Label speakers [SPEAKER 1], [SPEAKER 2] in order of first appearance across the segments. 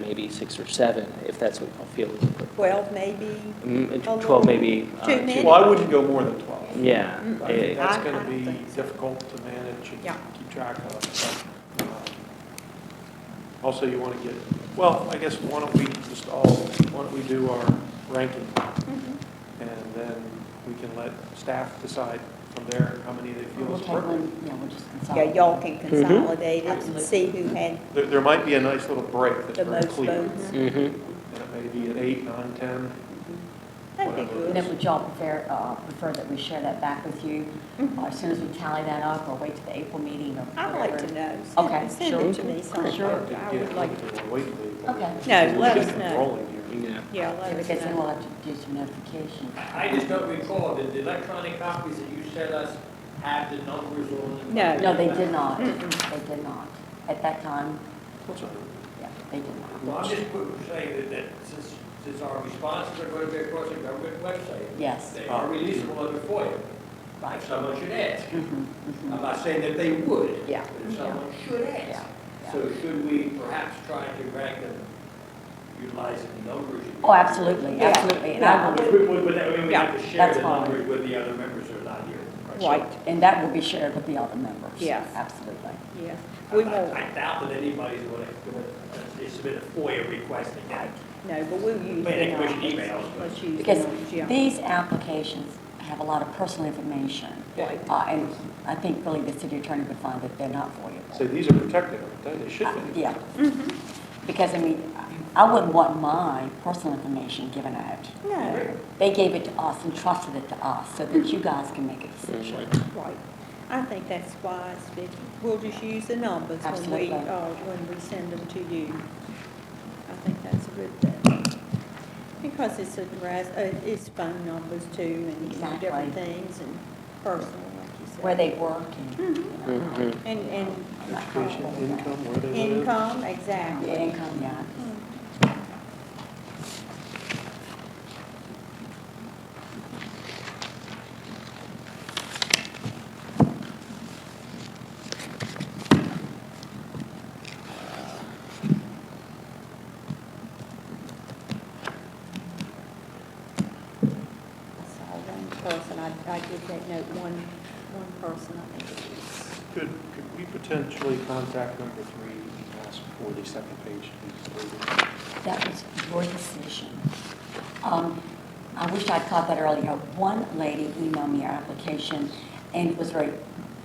[SPEAKER 1] maybe six or seven, if that's what y'all feel is appropriate.
[SPEAKER 2] 12 maybe?
[SPEAKER 1] Mm, and
[SPEAKER 2] A little-
[SPEAKER 1] 12 maybe. uh,
[SPEAKER 2] too
[SPEAKER 1] two-
[SPEAKER 2] many?
[SPEAKER 3] Well, I wouldn't go more than 12.
[SPEAKER 1] Yeah.
[SPEAKER 2] Mm.
[SPEAKER 3] I think
[SPEAKER 1] eh,
[SPEAKER 3] that's
[SPEAKER 2] I-
[SPEAKER 3] going
[SPEAKER 2] I
[SPEAKER 3] to be
[SPEAKER 2] think so.
[SPEAKER 3] difficult to manage and
[SPEAKER 2] Yeah.
[SPEAKER 3] keep track of. but, um, Also, you want to get, well, I guess why don't we just all, why don't we do our ranking? And then we can let staff decide from there how many they feel
[SPEAKER 4] We'll
[SPEAKER 3] is
[SPEAKER 4] take
[SPEAKER 3] appropriate.
[SPEAKER 4] one, yeah, we'll just
[SPEAKER 2] Yeah,
[SPEAKER 4] consolidate.
[SPEAKER 2] y'all can consolidate it and see who had
[SPEAKER 3] There, there might be a nice little break that's
[SPEAKER 2] the
[SPEAKER 3] very
[SPEAKER 2] most
[SPEAKER 3] clear. And
[SPEAKER 2] votes.
[SPEAKER 1] mhm.
[SPEAKER 3] it may be at eight, nine, 10.
[SPEAKER 2] That'd be
[SPEAKER 3] whatever.
[SPEAKER 4] And then
[SPEAKER 2] good.
[SPEAKER 4] would y'all prefer, uh, prefer that we share that back with you
[SPEAKER 2] Mhm.
[SPEAKER 4] uh, as soon as we tally that up or wait to the April meeting or
[SPEAKER 2] I'd like
[SPEAKER 4] whatever?
[SPEAKER 2] to know.
[SPEAKER 4] Okay,
[SPEAKER 2] Send- Send it to
[SPEAKER 1] sure.
[SPEAKER 2] me
[SPEAKER 4] Sure.
[SPEAKER 2] sometime. I would like,
[SPEAKER 3] to wait till April.
[SPEAKER 4] Okay.
[SPEAKER 2] No, let
[SPEAKER 3] We'll
[SPEAKER 2] us
[SPEAKER 3] get
[SPEAKER 2] know.
[SPEAKER 3] rolling here.
[SPEAKER 1] Yeah.
[SPEAKER 2] yeah, let us
[SPEAKER 4] Because then
[SPEAKER 2] know.
[SPEAKER 4] we'll have to do some notification.
[SPEAKER 5] I just don't recall, did the electronic copies that you sent us have the numbers on them?
[SPEAKER 2] No.
[SPEAKER 4] No, they did not.
[SPEAKER 2] Mm-mm.
[SPEAKER 4] They did not. At that time,
[SPEAKER 3] What's up?
[SPEAKER 4] yeah, they did
[SPEAKER 5] Well, I'm
[SPEAKER 4] not.
[SPEAKER 5] just put- saying that, that since, since our responses are going to be across the government website,
[SPEAKER 4] Yes,
[SPEAKER 5] they are releasable under FOIA,
[SPEAKER 4] right.
[SPEAKER 5] if someone should ask.
[SPEAKER 4] Mhm,
[SPEAKER 5] I'm
[SPEAKER 4] mhm.
[SPEAKER 5] not saying that they would,
[SPEAKER 4] Yeah,
[SPEAKER 5] but if someone should
[SPEAKER 4] yeah,
[SPEAKER 5] ask.
[SPEAKER 4] yeah.
[SPEAKER 5] So should we perhaps try to rank them utilizing the numbers? you-
[SPEAKER 4] Oh, absolutely,
[SPEAKER 2] Yeah.
[SPEAKER 4] absolutely. And I will,
[SPEAKER 5] Would, would, would that, I mean, we
[SPEAKER 2] Yeah,
[SPEAKER 5] have to share
[SPEAKER 4] that's
[SPEAKER 5] the
[SPEAKER 4] fine.
[SPEAKER 5] numbers with the other members who are not here.
[SPEAKER 2] Right,
[SPEAKER 4] and that will be shared with the other members.
[SPEAKER 2] Yes.
[SPEAKER 4] Absolutely.
[SPEAKER 2] yeah. We won't,
[SPEAKER 5] I I doubt that anybody's going to submit a FOIA request again.
[SPEAKER 2] no, but we'll use
[SPEAKER 5] But they
[SPEAKER 2] the
[SPEAKER 5] can wish
[SPEAKER 2] numbers.
[SPEAKER 5] emails, but-
[SPEAKER 2] Let's use the
[SPEAKER 4] Because
[SPEAKER 2] numbers, yeah.
[SPEAKER 4] these applications have a lot of personal information.
[SPEAKER 2] Right.
[SPEAKER 4] Uh, And I think really the city attorney would find that they're not
[SPEAKER 3] So
[SPEAKER 4] voidable.
[SPEAKER 3] these are protected, aren't they? They
[SPEAKER 4] Uh,
[SPEAKER 3] should be.
[SPEAKER 4] Yeah, because I mean, I wouldn't want my personal information given out.
[SPEAKER 2] No,
[SPEAKER 4] They gave it to us and trusted it to us so that you guys can make a decision.
[SPEAKER 2] right. I think that's wise, Vicki. We'll just use the numbers when we,
[SPEAKER 4] Absolutely.
[SPEAKER 2] uh, when we send them to you. I think that's a good thing. Because it's address, uh, it's phone numbers too and
[SPEAKER 4] Exactly.
[SPEAKER 2] different things and personal, like you said.
[SPEAKER 4] Where they work and, you know,
[SPEAKER 1] Mhm.
[SPEAKER 2] And, and
[SPEAKER 3] Education, income, where they live.
[SPEAKER 2] income,
[SPEAKER 4] the
[SPEAKER 2] exactly.
[SPEAKER 4] income, yeah.
[SPEAKER 2] I saw one person, I, I did that note, one, one person, I think it was.
[SPEAKER 3] Could, could we potentially contact number three and ask for the second page to be included?
[SPEAKER 4] That was your decision. Um, I wish I'd caught that earlier. One lady emailed me her application, and it was very,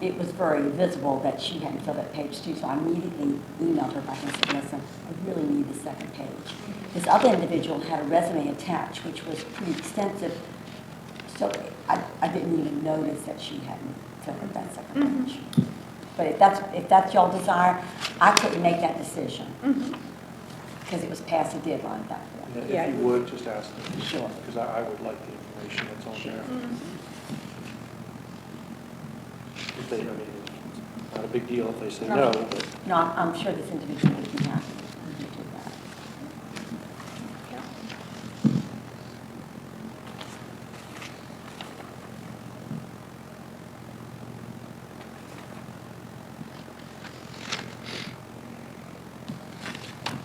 [SPEAKER 4] it was very visible that she hadn't filled that page too, so I immediately emailed her back and said, listen, I really need the second page. This other individual had a resume attached, which was pretty extensive, so I, I didn't even notice that she hadn't filled out that second page. But if that's, if that's y'all desire, I couldn't make that decision because it was past the deadline at that point.
[SPEAKER 3] And
[SPEAKER 2] Yeah.
[SPEAKER 3] If you would, just ask them.
[SPEAKER 4] Sure.
[SPEAKER 3] Because I, I would like the information that's on there. If they, I mean, it's not a big deal if they say no, but
[SPEAKER 4] No, I'm I'm sure this individual would be happy to do that.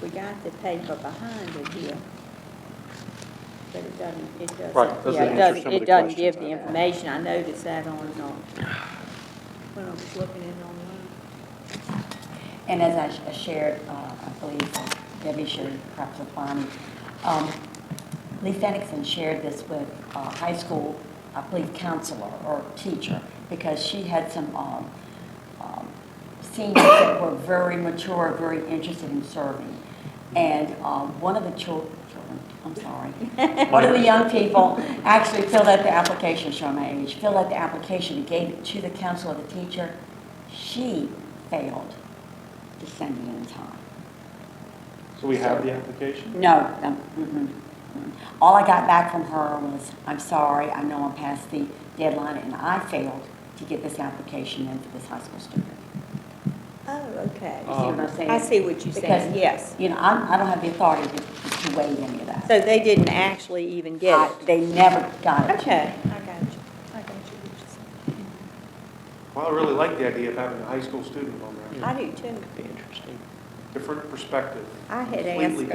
[SPEAKER 2] We got the paper behind it here. But it doesn't, it doesn't.
[SPEAKER 3] Right, doesn't
[SPEAKER 2] yeah, it
[SPEAKER 3] answer
[SPEAKER 2] doesn't-
[SPEAKER 3] some of the
[SPEAKER 2] It doesn't
[SPEAKER 3] questions.
[SPEAKER 2] give the information, I noticed that on, uh, when I was looking at it online.
[SPEAKER 4] And as I sh- I shared, uh, I believe Debbie shared, perhaps with Bonnie, um, Lee Fenixon shared this with a high school, I believe, counselor or teacher, because she had some um, um, seniors that were very mature, very interested in serving. And um, one of the chil- children, I'm sorry, one of the young people actually filled out the application, showing my age, filled out the application and gave it to the counselor, the teacher. She failed to send it in time.
[SPEAKER 3] so we have the application?
[SPEAKER 4] No, no, mm-mm, mm. All I got back from her was, I'm sorry, I know I'm past the deadline, and I failed to get this application in for this high school student.
[SPEAKER 2] Oh, okay.
[SPEAKER 4] You see what I'm saying?
[SPEAKER 2] I see what you're saying,
[SPEAKER 4] Because-
[SPEAKER 2] yes.
[SPEAKER 4] You know, I'm- I don't have the authority to to weigh any of that.
[SPEAKER 2] So they didn't actually even
[SPEAKER 4] I-
[SPEAKER 2] get it?
[SPEAKER 4] They never got it. to me.
[SPEAKER 2] Okay, I got you, I got you.
[SPEAKER 3] Well, I really like the idea of having a high school student on there.
[SPEAKER 2] I do too.
[SPEAKER 1] Be interesting.
[SPEAKER 3] Different perspective.
[SPEAKER 2] I had
[SPEAKER 3] Completely
[SPEAKER 2] asked